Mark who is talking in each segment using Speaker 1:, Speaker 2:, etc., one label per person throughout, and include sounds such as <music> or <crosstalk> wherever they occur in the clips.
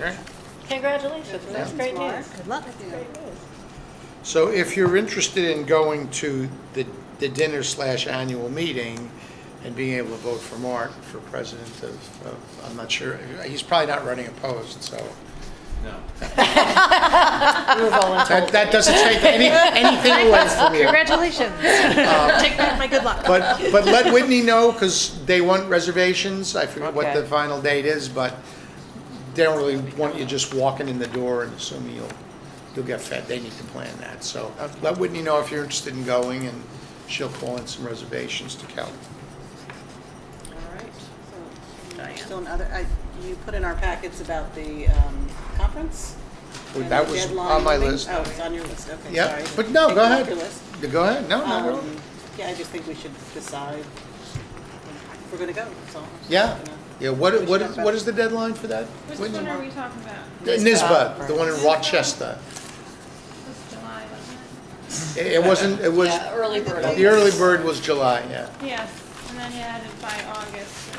Speaker 1: Right?
Speaker 2: Congratulations, that's great news.
Speaker 3: Good luck.
Speaker 1: So if you're interested in going to the, the dinner slash annual meeting and being able to vote for Mark for president of, of, I'm not sure, he's probably not running opposed, so.
Speaker 2: We were volunteering.
Speaker 1: That, that doesn't take any, anything away from you.
Speaker 4: <laughs>
Speaker 3: Congratulations.
Speaker 4: Um,
Speaker 3: Take back my good luck.
Speaker 1: But, but let Whitney know, because they want reservations, I forget what the
Speaker 2: Okay.
Speaker 1: final date is, but they don't really want you just walking in the door and assuming you'll, you'll get fed, they need to plan that, so let Whitney know if you're interested in going, and she'll call in some reservations to Kelly.
Speaker 4: All right, so, and still another, I, you put in our packets about the, um, conference?
Speaker 1: Well,
Speaker 4: and
Speaker 1: that
Speaker 4: the
Speaker 1: was
Speaker 4: deadline
Speaker 1: on my
Speaker 4: thing?
Speaker 1: list.
Speaker 4: Oh, it's on your list, okay, sorry.
Speaker 1: Yeah, but no,
Speaker 4: Take
Speaker 1: go
Speaker 4: it off
Speaker 1: ahead.
Speaker 4: your list.
Speaker 1: Go ahead, no, no, no.
Speaker 4: Um, yeah, I just think we should decide if we're gonna go, that's all.
Speaker 1: yeah, yeah, what,
Speaker 4: should
Speaker 1: what,
Speaker 4: talk
Speaker 1: is-
Speaker 4: about
Speaker 1: what
Speaker 4: it.
Speaker 1: is the deadline for that?
Speaker 5: Which
Speaker 1: Whitney?
Speaker 5: one are we talking about?
Speaker 1: The NISBA, the one in Rochester,
Speaker 5: This July, wasn't
Speaker 1: it, it wasn't, it was,
Speaker 2: Yeah, early bird.
Speaker 1: the early bird was July, yeah.
Speaker 5: it? Yes, and then you had it by August or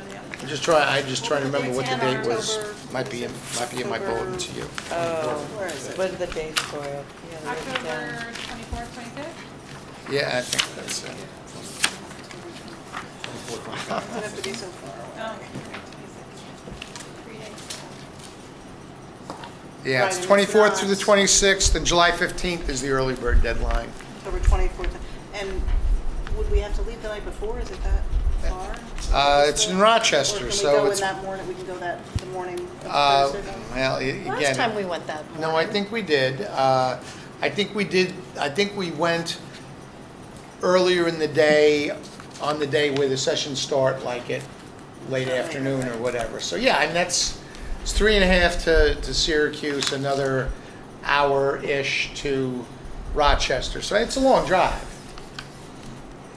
Speaker 5: or the other.
Speaker 1: I'm just trying, I'm just trying to remember what the
Speaker 5: It's in
Speaker 1: date was.
Speaker 4: October.
Speaker 1: Might be, in might be in my bulletin to you.
Speaker 4: Where is it?
Speaker 2: What are the dates for it? Yeah, they're written down.
Speaker 5: October twenty-fourth, twenty-fifth?
Speaker 1: Yeah, I think that's it.
Speaker 4: Does it have to be so far away?
Speaker 5: Oh. Three days.
Speaker 1: Yeah,
Speaker 4: Right,
Speaker 1: it's
Speaker 4: and it's
Speaker 1: 24th through the
Speaker 4: not-
Speaker 1: 26th, and July 15th is the early bird deadline.
Speaker 4: October twenty-fourth, and would we have to leave the night before, is it that far?
Speaker 1: Uh, it's in Rochester,
Speaker 4: Or
Speaker 1: so
Speaker 4: can we go in
Speaker 1: it's-
Speaker 4: that morning, we can go that, the morning
Speaker 1: Uh,
Speaker 4: of Thursday? night?
Speaker 1: Well, i-
Speaker 2: Last time
Speaker 1: again,
Speaker 2: we went that morning.
Speaker 1: no, I think we did. Uh, I think we did, I think we went earlier in the day, on the day where the sessions start, like at late
Speaker 4: Right,
Speaker 1: afternoon or
Speaker 4: right.
Speaker 1: whatever. So, yeah, and that's, it's three and a half to, to Syracuse, another hour-ish to Rochester. So it's a long drive.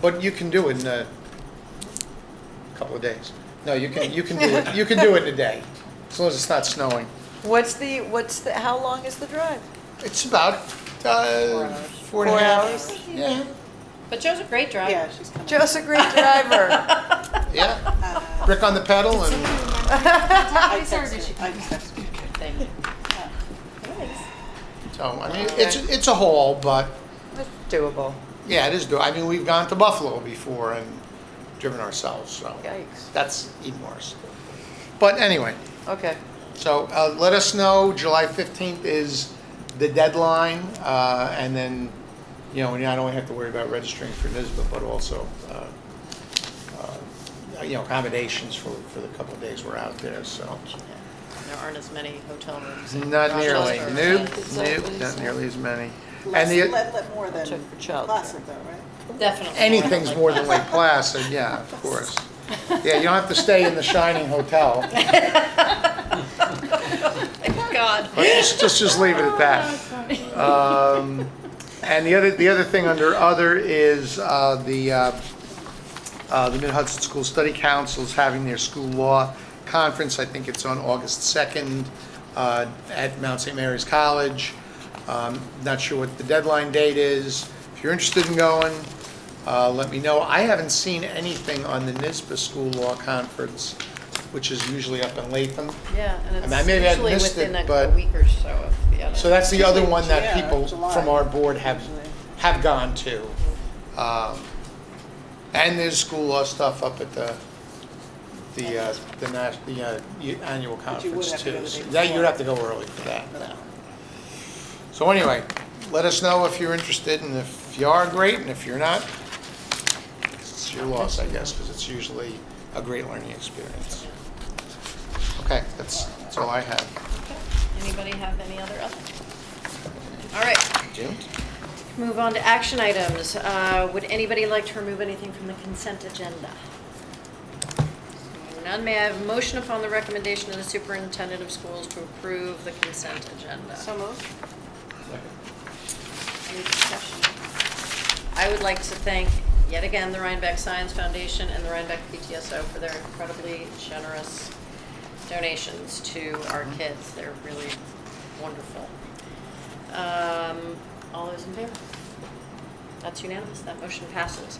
Speaker 1: But you can do it in a couple of days. No, you can, you can do it, you can do it in a day, as long as it's not snowing.
Speaker 6: What's the, what's the, how long is the drive?
Speaker 1: It's about, uh, four and a
Speaker 6: Four
Speaker 1: half.
Speaker 6: hours?
Speaker 1: Yeah,
Speaker 2: But Joe's a great driver.
Speaker 4: Yeah, she's coming.
Speaker 6: Joe's a
Speaker 4: <laughs>
Speaker 6: great driver.
Speaker 1: yeah.
Speaker 4: Uh,
Speaker 1: Brick on the pedal and.
Speaker 4: I texted her. I just texted her.
Speaker 2: Thank you.
Speaker 1: So, I mean, it's, it's a haul, but,
Speaker 6: It's Doable.
Speaker 1: yeah, it is, do- I mean, we've gone to Buffalo before and driven ourselves, so.
Speaker 6: Yikes.
Speaker 1: That's even worse. But anyway,
Speaker 6: Okay.
Speaker 1: so, uh, let us know, July fifteenth is the deadline, uh, and then, you know, we not only have to worry about registering for NISBA, but also, uh, uh, you know, accommodations for, for the couple of days we're out there, so.
Speaker 2: There aren't as many hotel rooms. in
Speaker 1: Not nearly,
Speaker 2: Rochester
Speaker 1: nope,
Speaker 2: as-
Speaker 1: nope, not nearly as many.
Speaker 4: Less,
Speaker 1: And the.
Speaker 4: let, let more than
Speaker 6: Check for childcare.
Speaker 4: classic though, right?
Speaker 2: Definitely.
Speaker 1: Anything's
Speaker 2: Like
Speaker 1: more
Speaker 2: that.
Speaker 1: than Lake Placid, yeah, of
Speaker 4: <laughs>
Speaker 1: course. Yeah, you don't have to stay in the Shining Hotel.
Speaker 2: Thank Oh, God.
Speaker 1: Let's just, just- just leave it at that. Um, And the other, the other thing under other is uh, the, uh, uh, the Mid Hudson School Study Council is having their school law conference. I think it's on August 2nd uh, at Mount St. Mary's College. Um, Not sure what the deadline date is. If you're interested in going, uh, let me know. I haven't seen anything on the NISBA School Law Conference, which is usually up in Latham.
Speaker 2: Yeah,
Speaker 1: I mean,
Speaker 2: and
Speaker 1: I
Speaker 2: it's
Speaker 1: may have
Speaker 2: usually
Speaker 1: missed it,
Speaker 2: within a- a
Speaker 1: but-
Speaker 2: week or so of the other.
Speaker 1: So that's the other one that
Speaker 4: Yeah,
Speaker 1: people
Speaker 4: July,
Speaker 1: from our board have,
Speaker 4: usually.
Speaker 1: have gone to. Um, And there's school law stuff up at the, the, uh, the nas, the, uh, y- annual
Speaker 4: you would
Speaker 1: conference
Speaker 4: have to go
Speaker 1: too.
Speaker 4: the day
Speaker 1: So That, you'd
Speaker 4: before.
Speaker 1: have to go early for that now. So anyway, let us know if you're interested, and if you are, great, and if you're not, it's your loss, I guess, because it's usually a great learning experience. Okay, that's, that's all I have.
Speaker 2: Okay. Anybody have any other other? All right,
Speaker 1: Jim?
Speaker 2: move on to action items. Uh, Would anybody like to remove anything from the consent agenda? Seeing None, may I have a motion upon the recommendation of the superintendent of schools to approve the consent agenda?
Speaker 4: So moved.
Speaker 2: Any discussion? I would like to thank, yet again, the Rhinebeck Science Foundation and the Rhinebeck PTSO for their incredibly generous donations to our kids. They're really wonderful. Um, All those in favor? That's unanimous, that motion passes.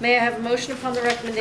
Speaker 2: May I have a motion upon the recommendation